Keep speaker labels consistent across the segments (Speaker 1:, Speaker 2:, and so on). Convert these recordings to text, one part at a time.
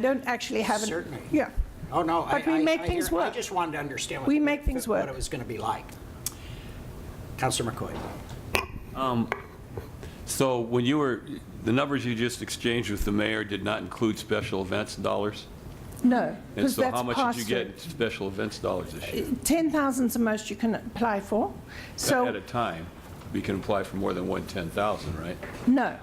Speaker 1: I don't actually have. an-
Speaker 2: Certainly.
Speaker 1: Yeah.
Speaker 2: Oh, no. I-
Speaker 1: But we
Speaker 2: I-
Speaker 1: make
Speaker 2: I
Speaker 1: things
Speaker 2: hear- I
Speaker 1: work.
Speaker 2: just wanted to understand. what
Speaker 1: We
Speaker 2: the-
Speaker 1: make things
Speaker 2: What
Speaker 1: work.
Speaker 2: it was going to be like. Counselor McCoy.
Speaker 3: So when you were, the numbers you just exchanged with the mayor did not include special events dollars?
Speaker 1: No,
Speaker 3: And
Speaker 1: because
Speaker 3: so how
Speaker 1: that's
Speaker 3: much did you
Speaker 1: passed.
Speaker 3: get in special events dollars this year?
Speaker 1: 10,000 is the most you can apply for.
Speaker 3: At a
Speaker 1: So,
Speaker 3: time, we can apply for more than one 10,000, right?
Speaker 1: no,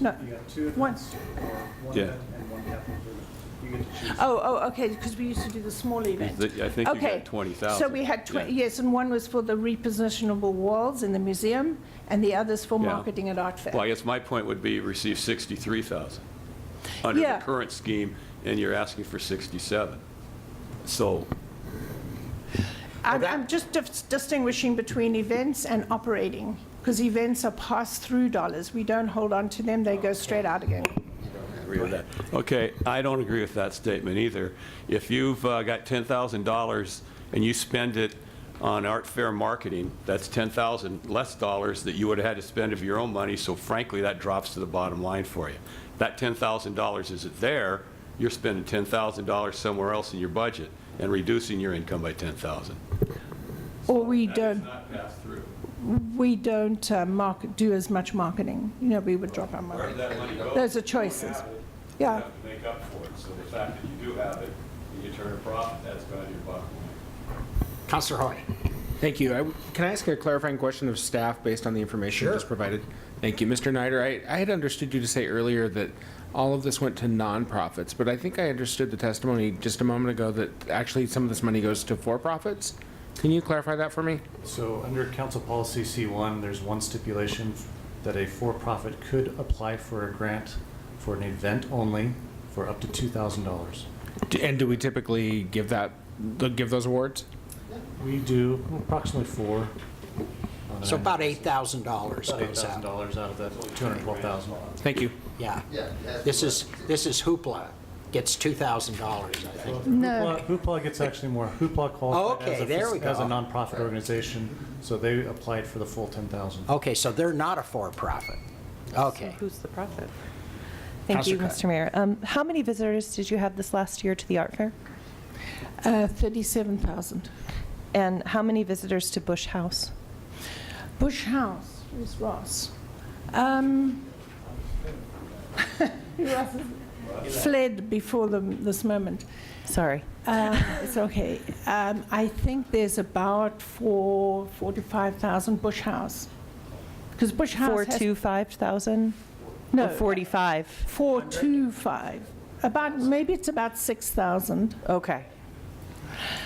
Speaker 1: no.
Speaker 4: You got two
Speaker 1: One.
Speaker 4: events, or one
Speaker 3: Yeah.
Speaker 4: event and one half improvement. You get to choose.
Speaker 1: Oh, oh, okay, because we used to do the small event.
Speaker 3: Th- I think you
Speaker 1: Okay,
Speaker 3: got 20,000.
Speaker 1: So we had, twen-
Speaker 3: Yeah.
Speaker 1: yes, and one was for the repositionable walls in the museum, and the other's for
Speaker 3: Yeah.
Speaker 1: marketing at Art Fair.
Speaker 3: Well, I guess my point would be you receive 63,000 under
Speaker 1: Yeah.
Speaker 3: the current scheme, and you're asking for 67. So,
Speaker 1: I'm,
Speaker 2: that-
Speaker 1: I'm just dis- distinguishing between events and operating, because events are pass-through dollars. We don't hold on to them, they go straight out again.
Speaker 3: agree with that. Okay, I don't agree with that statement either. If you've uh, got $10,000 and you spend it on art fair marketing, that's 10,000 less dollars that you would have had to spend of your own money, so frankly, that drops to the bottom line for you. That $10,000 isn't there, you're spending $10,000 somewhere else in your budget and reducing your income by 10,000.
Speaker 1: Or we don't,
Speaker 3: not passed through.
Speaker 1: we don't uh, market, do as much marketing. You know, we would drop our money.
Speaker 3: that money goes?
Speaker 1: Those are choices. Yeah.
Speaker 3: You have to make up for it, so the fact that you do have it, and you turn a profit, that's going to your bottom line.
Speaker 2: Counselor Hoy.
Speaker 5: Thank you. I- Can I ask a clarifying question of staff based on the information
Speaker 2: Sure.
Speaker 5: just provided? Thank you. Mr. Snyder, I, I had understood you to say earlier that all of this went to nonprofits, but I think I understood the testimony just a moment ago that actually some of this money goes to for-profits. Can you clarify that for me?
Speaker 4: So under Council Policy C1, there's one stipulation that a for-profit could apply for a grant for an event only for up to $2,000.
Speaker 5: D- And do we typically give that, th- give those awards?
Speaker 4: We do approximately four. on
Speaker 2: So
Speaker 4: an-
Speaker 2: about $8,000
Speaker 4: about
Speaker 2: goes out.
Speaker 4: $8,000 out of that 212,000.
Speaker 5: Thank you.
Speaker 2: Yeah. This is, this is hoopla. Gets $2,000, I think.
Speaker 1: No.
Speaker 4: Hoopla- Hoopla gets actually more. Hoopla qualified as
Speaker 2: Oh, Okay,
Speaker 4: a,
Speaker 2: there we
Speaker 4: fis- as a
Speaker 2: go.
Speaker 4: nonprofit organization, so they applied for the full 10,000.
Speaker 2: Okay, so they're not a for-profit. Okay.
Speaker 6: Who's the profit? Thank you,
Speaker 2: Counselor Cotton.
Speaker 6: Mr. Mayor. Um, How many visitors did you have this last year to the art fair?
Speaker 1: Uh, 37,000.
Speaker 6: And how many visitors to Bush House?
Speaker 1: Bush House is Ross. Um, who else is- Fled before the, this moment.
Speaker 6: Sorry.
Speaker 1: Um, It's okay. Um, I think there's about four, four to 5,000 Bush House. Because Bush
Speaker 6: Four
Speaker 1: House has...
Speaker 6: to 5,000?
Speaker 1: No.
Speaker 6: Or 45?
Speaker 1: Four to five. About, maybe it's about 6,000.
Speaker 6: Okay.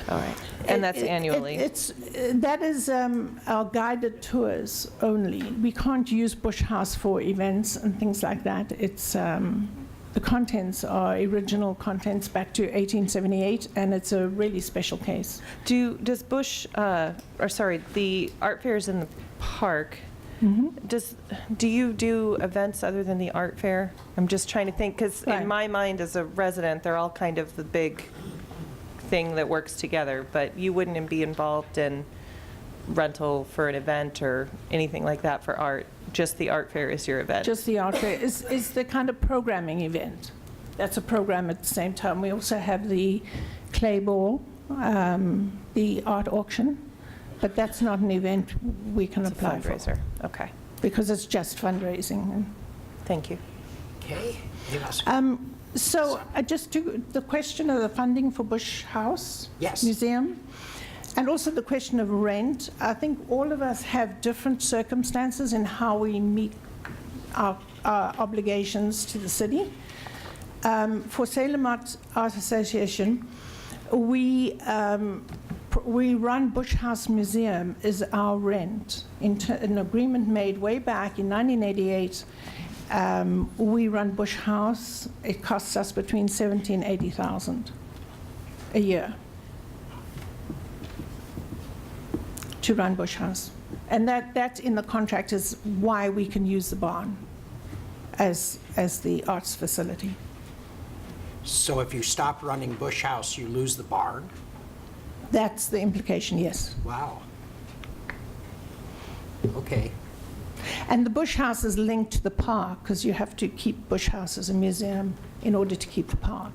Speaker 6: All right. And that's
Speaker 1: It- it-
Speaker 6: annually?
Speaker 1: it- It's, uh, that is um, our guided tours only. We can't use Bush House for events and things like that. It's, um, the contents are original contents back to 1878, and it's a really special case.
Speaker 6: Do, does Bush, uh, or sorry, the art fair is in the park. Does, do you do events other than the art fair? I'm just trying to think, because
Speaker 1: Right.
Speaker 6: in my mind as a resident, they're all kind of the big thing that works together, but you wouldn't be involved in rental for an event or anything like that for art? Just the art fair is your event?
Speaker 1: Just the art fair is, is the kind of programming event. That's a program at the same time. We also have the clay ball, um, the art auction, but that's not an event we can
Speaker 6: It's a
Speaker 1: apply for.
Speaker 6: fundraiser? Okay,
Speaker 1: Because it's just fundraising.
Speaker 6: thank you.
Speaker 2: Okay. Yes.
Speaker 1: Um, So I just do, the question of the funding for Bush House.
Speaker 2: Yes.
Speaker 1: Museum, and also the question of rent. I think all of us have different circumstances in how we meet our our obligations to the city. Um, For Salem Art Art Association, we, um, pr- we run Bush House Museum is our rent. In ter- An agreement made way back in 1988, um, we run Bush House, it costs us between 70 and 80,000 a year to run Bush House. And that, that in the contract is why we can use the barn as, as the arts facility.
Speaker 2: So if you stop running Bush House, you lose the barn?
Speaker 1: That's the implication, yes.
Speaker 2: Wow. Okay.
Speaker 1: And the Bush House is linked to the park because you have to keep Bush House as a museum in order to keep the park.